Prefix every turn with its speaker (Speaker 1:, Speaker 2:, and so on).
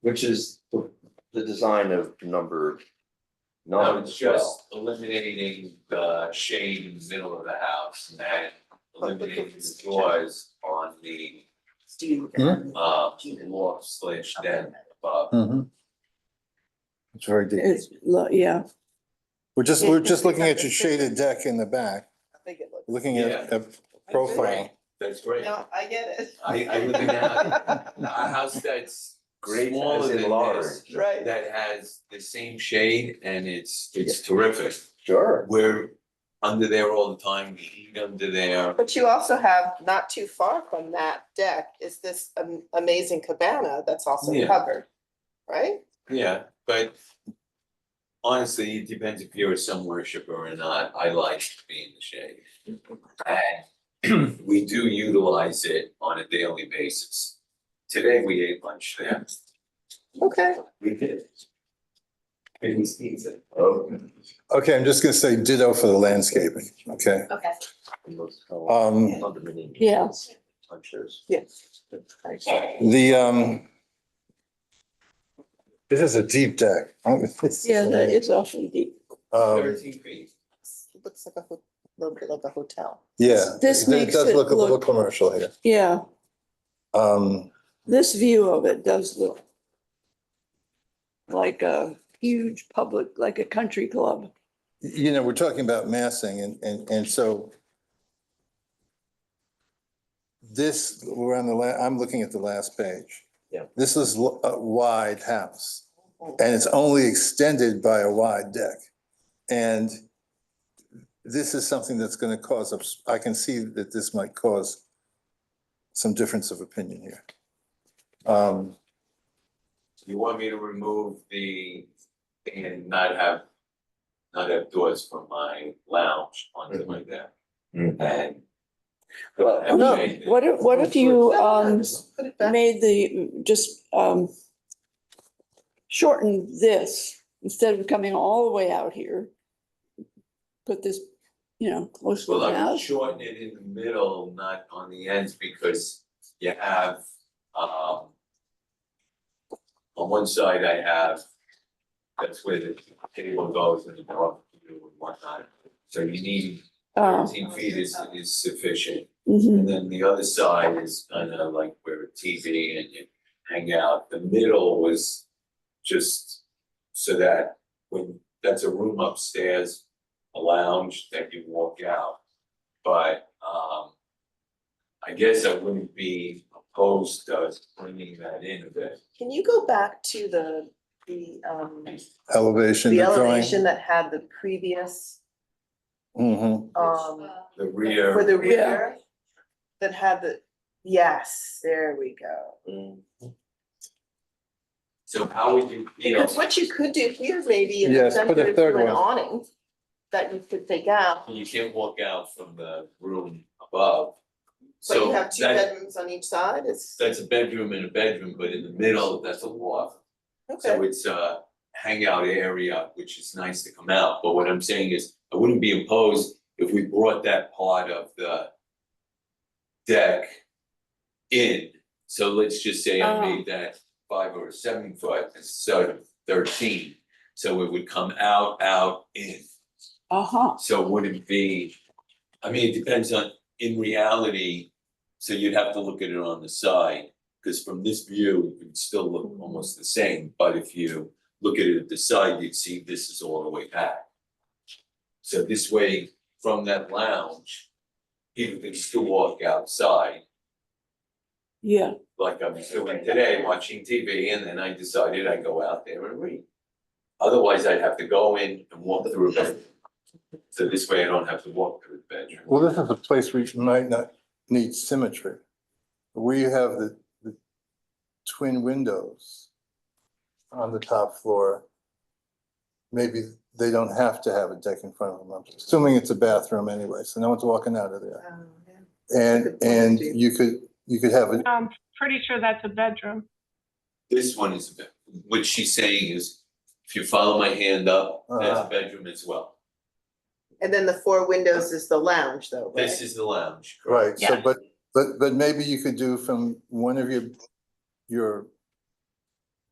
Speaker 1: Which is the, the design of number
Speaker 2: No,
Speaker 1: nine
Speaker 2: it's
Speaker 1: as well.
Speaker 2: just eliminating the shade in the middle of the house and then eliminating the doors on the uh wall slash den above.
Speaker 3: Mm-hmm. It's very deep.
Speaker 4: It's, lo- yeah,
Speaker 3: We're just, we're just looking at your shaded deck in the back,
Speaker 5: I think it looks.
Speaker 3: looking at a
Speaker 2: Right,
Speaker 3: profile.
Speaker 2: That's great.
Speaker 5: No, I get it.
Speaker 2: I I live in a a house that's
Speaker 1: Great
Speaker 2: smaller
Speaker 1: as in
Speaker 2: than
Speaker 1: large.
Speaker 2: this.
Speaker 5: Right.
Speaker 2: That has the same shade and it's it's terrific.
Speaker 1: Sure.
Speaker 2: We're under there all the time, we eat under there.
Speaker 5: But you also have, not too far from that deck, is this am- amazing cabana that's also
Speaker 2: Yeah.
Speaker 5: covered, right?
Speaker 2: Yeah, but honestly, it depends if you're a sun worshiper or not. I like to be in the shade. And we do utilize it on a daily basis. Today, we ate lunch there.
Speaker 5: Okay.
Speaker 2: We did. And we sneezed it.
Speaker 1: Oh.
Speaker 3: Okay, I'm just gonna say ditto for the landscaping, okay?
Speaker 6: Okay.
Speaker 1: and those tall
Speaker 3: Um,
Speaker 1: condominium
Speaker 4: Yeah.
Speaker 1: units, I'm sure. it's-
Speaker 5: Yes.
Speaker 3: the, um, this is a deep deck.
Speaker 4: yeah, that is awfully deep.
Speaker 3: Um,
Speaker 2: Thirteen feet.
Speaker 5: Looks like a, ho- little bit like a hotel.
Speaker 3: yeah.
Speaker 4: This makes
Speaker 3: does
Speaker 4: it
Speaker 3: look a little
Speaker 4: look-
Speaker 3: commercial here.
Speaker 4: Yeah,
Speaker 3: Um,
Speaker 4: this view of it does look like a huge public, like a country club.
Speaker 3: you know, we're talking about massing and, and, and so this, we're on the la, I'm looking at the last page.
Speaker 1: Yeah.
Speaker 3: This is l- a wide house and it's only extended by a wide deck. And this is something that's going to cause, ups- I can see that this might cause some difference of opinion here. Um,
Speaker 2: You want me to remove the, and not have, not have doors from my lounge onto my deck? And.
Speaker 4: No, What if, what if you, um,
Speaker 5: Put it back.
Speaker 4: made the, just, um, shortened this, instead of coming all the way out here, put this, you know, close to
Speaker 2: Well,
Speaker 4: the
Speaker 2: I would
Speaker 4: house.
Speaker 2: shorten it in the middle, not on the ends, because you have, um. On one side I have, that's where the table goes and the barbecue and whatnot, so you need
Speaker 4: Uh,
Speaker 2: thirteen feet is is sufficient.
Speaker 4: mhm.
Speaker 2: And then the other side is kind of like where a TV and you hang out. The middle was just so that when, that's a room upstairs, a lounge that you walk out. But, um, I guess I wouldn't be opposed to bringing that in a bit.
Speaker 5: Can you go back to the, the, um,
Speaker 3: elevation,
Speaker 5: the
Speaker 3: the drawing.
Speaker 5: elevation that had the previous,
Speaker 3: Mhm.
Speaker 5: um,
Speaker 2: The
Speaker 5: for
Speaker 2: rear,
Speaker 5: the
Speaker 4: Yeah.
Speaker 5: rear? That had the, yes, there we go.
Speaker 1: Mm.
Speaker 2: so how would you feel?
Speaker 5: Because what you could do here maybe in the
Speaker 3: Yes, put a
Speaker 5: center is
Speaker 3: third
Speaker 5: do an
Speaker 3: one.
Speaker 5: awning that you could take out,
Speaker 2: You can't walk out from the room above.
Speaker 5: but you
Speaker 2: So
Speaker 5: have two
Speaker 2: that-
Speaker 5: bedrooms on each side, it's,
Speaker 2: That's a bedroom and a bedroom, but in the middle, that's a loft. So
Speaker 5: okay,
Speaker 2: it's a hangout area, which is nice to come out, but what I'm saying is, I wouldn't be opposed if we brought that part of the deck in, so let's just say I made that five or seven foot, instead of thirteen. So it would come out, out, in,
Speaker 4: Uh-huh,
Speaker 2: so it wouldn't be, I mean, it depends on, in reality, so you'd have to look at it on the side, because from this view, it would still look almost the same, but if you look at it at the side, you'd see this is all the way back. So this way, from that lounge, people can still walk outside,
Speaker 4: yeah,
Speaker 2: like I'm doing today, watching TV, and then I decided I go out there and read. Otherwise, I'd have to go in and walk through a bedroom. So this way I don't have to walk through the bedroom.
Speaker 3: Well, this is a place we might not need symmetry. We have the, the twin windows on the top floor. Maybe they don't have to have a deck in front of them, I'm assuming it's a bathroom anyway, so no one's walking out of there.
Speaker 5: um, yeah.
Speaker 3: And,
Speaker 5: Good point,
Speaker 3: and
Speaker 5: Steve.
Speaker 3: you could, you could have, a-
Speaker 7: I'm pretty sure that's a bedroom.
Speaker 2: This one is, a bed- what she's saying is, if you follow my hand up, that's
Speaker 3: Uh-huh.
Speaker 2: a bedroom as well.
Speaker 5: And then the four windows is the lounge though, right?
Speaker 2: This is the lounge.
Speaker 3: right, so,
Speaker 7: Yeah.
Speaker 3: but, but, but maybe you could do from one of your, your